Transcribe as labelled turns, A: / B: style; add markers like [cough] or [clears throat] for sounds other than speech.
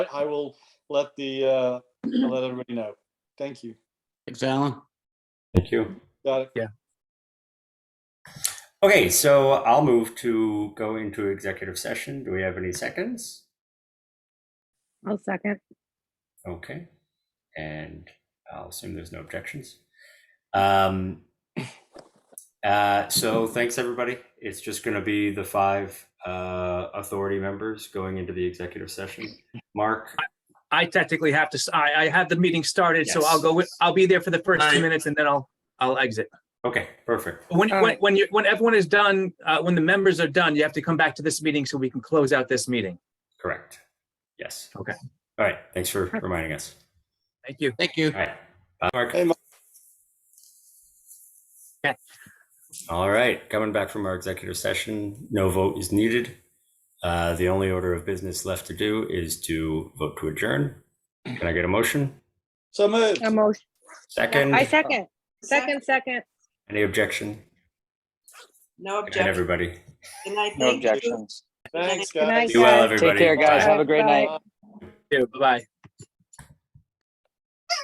A: I will let the, uh, I'll let everybody know. Thank you.
B: Thanks, Alan.
C: Thank you.
A: Got it.
C: Okay, so I'll move to go into executive session. Do we have any seconds?
D: I'll second.
C: Okay, and I'll assume there's no objections. Um, [clears throat] uh, so thanks, everybody. It's just gonna be the five, uh, authority members going into the executive session. Mark,
E: I technically have to, s- I, I have the meeting started, so I'll
C: Yes.
E: go, with I'll be there for the first two minutes and then I'll, I'll exit.
C: okay, perfect.
E: When,
D: All
E: when,
D: right.
E: when you, when everyone is done, uh, when the members are done, you have to come back to this meeting so we can close out this meeting.
C: Correct. Yes.
E: Okay.
C: All right, thanks for reminding us.
E: Thank you.
B: Thank you.
C: All right. Bye, Mark.
A: Hey, Mark.
E: Okay.
C: All right, coming back from our executive session, no vote is needed. Uh, The only order of business left to do is to vote to adjourn. Can I get a motion?
A: So moved.
D: A motion.
C: Second,
D: I second. Second, second.
C: any objection? Good
F: No
C: night,
F: objection.
C: everybody.
F: Good night,
G: No
F: thank you.
G: objections.
A: Thanks,
F: Good
A: guys.
D: night.
C: Be well,
D: Guys,
G: Take
C: everybody.
G: care, guys. Have a great night.
E: Bye-bye.